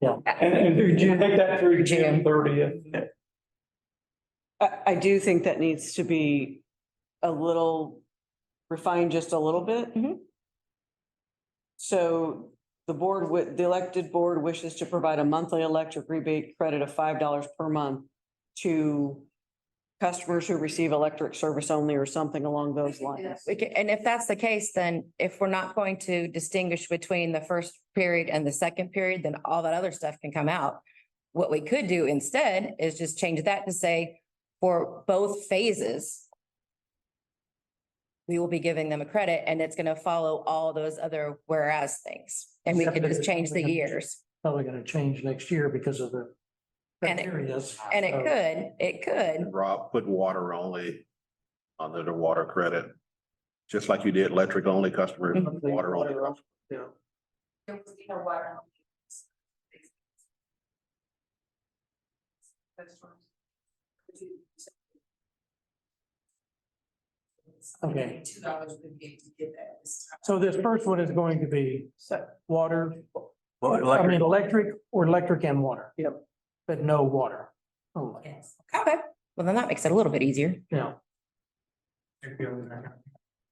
And, and Through June. take that through June June. thirtieth. I, I do think that needs to be a little refined just a little bit. Mm-hmm. Mhm. So the board with, the elected board wishes to provide a monthly electric rebate credit of five dollars per month to customers who receive electric service only or something along those lines. We ca- And if that's the case, then if we're not going to distinguish between the first period and the second period, then all that other stuff can come out. What we could do instead is just change that to say, for both phases, we will be giving them a credit and it's going to follow all those other whereas things. And we could just change the years. probably gonna change next year because of the And it- criteria. And it could, it could. Rob, put water only under the water credit. Just like you did electric only customers, Mm-hmm. water only. Yeah, There was no water. Okay. Two dollars would be to get that this time. so this first one is going to be water, Well, I mean, electric, electric or electric and water. Yep. But no water only, Yes. Okay, well, then that makes it a little bit easier. yeah.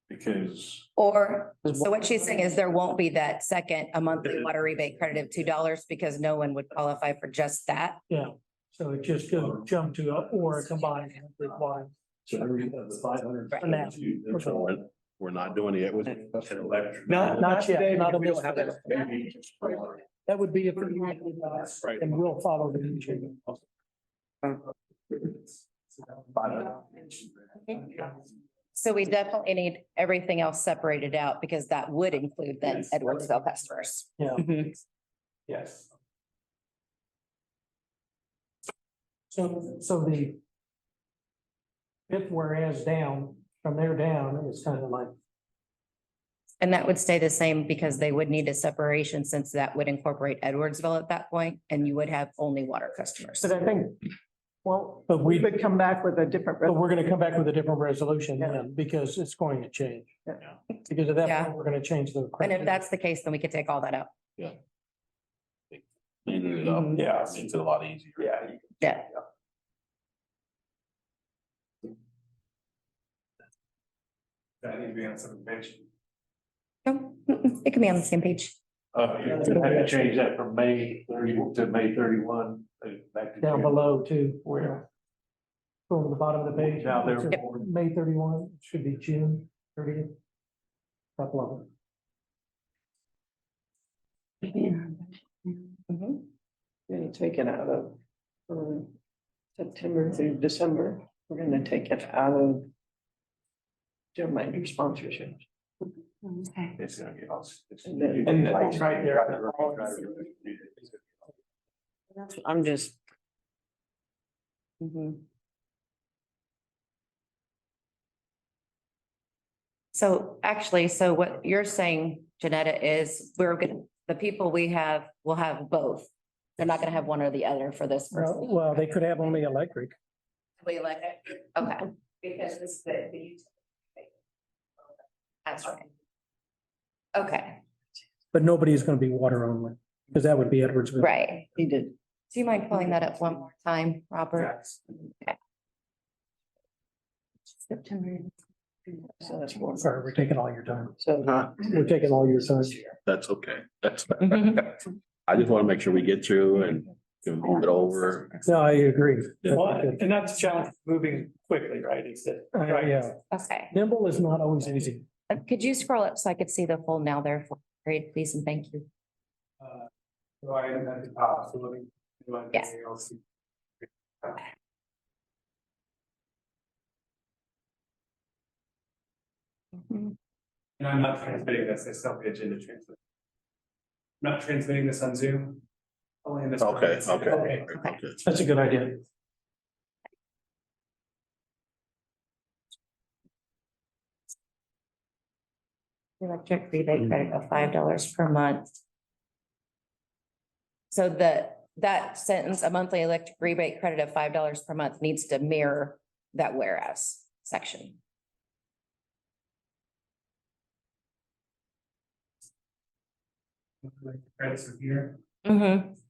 because Or, Is so what she's saying is there won't be that second, a monthly water rebate credit of two dollars because no one would qualify for just that. So it just goes jump to a- or a combined. reply. Um, so every, the five hundred. Right. We're- We're not doing it. It An electric. Not, not yet, not on We this. don't have that. That would be if. we had it with us, Right. And we'll follow the. teaching. So we definitely need everything else separated out because that would include then Edwardsville customers. Yeah. Mhm. Yes. So, so the. Fifth whereas down, from there down is kind of like, And that would stay the same because they would need a separation since that would incorporate Edwardsville at that point and you would have only water customers. But I think, well, but we we, could come back with a different. but we're gonna come back with a different resolution then, because it's going to change. Yeah. Because at that Yeah. point, we're gonna change the. And if that's the case, then we could take all that out. Cleaning it up, Yeah. makes it a lot easier. Yeah. you- Yeah. That needs to be on some page. No, mm-mm, It can be on the same page. Uh, you have to change that from May thirty to May thirty-one, uh, back to. Down June. below too, where. From the bottom of the page. Now there- it's May thirty-one, it should be June thirtieth. Top level. Mhm. Gonna take it out of. um, September through December, we're gonna take it out of. Jim Minor sponsorship. It's gonna get us. it's- And then- And it's right there. I'm just. Mm-hmm. So actually, so what you're saying, Janetta, is we're gonna, the people we have will have both. They're not gonna have one or the other for this. first- Uh, Well, they could have only electric. We like it. Okay, Because this is the, the utility. that's right. Okay, But nobody's gonna be water only, because that would be Edwards. right. He did. Do you mind pulling that up one more time, Robert? September. So that's one. Sorry, we're taking all your time. So. Uh, We're taking all your time. That's okay. That's, Mhm. I just want to make sure we get through and can move it over. No, I agree. Well, And that's the challenge, moving quickly, right? It's that. Uh, yeah, Okay. nimble is not always easy. Uh, Could you scroll up so I could see the full now there for grade, please, and thank you. So uh, I am at the top, so let me. do anything Yes. else. And I'm not transmitting this, I still have the agenda transmitted. I'm Not transmitting this on Zoom. Only in this. Okay, okay. Okay. Okay. That's a good idea. Electric rebate credit of five dollars per month. So the, that sentence, a monthly electric rebate credit of five dollars per month needs to mirror that whereas section. Credits are here. Mhm.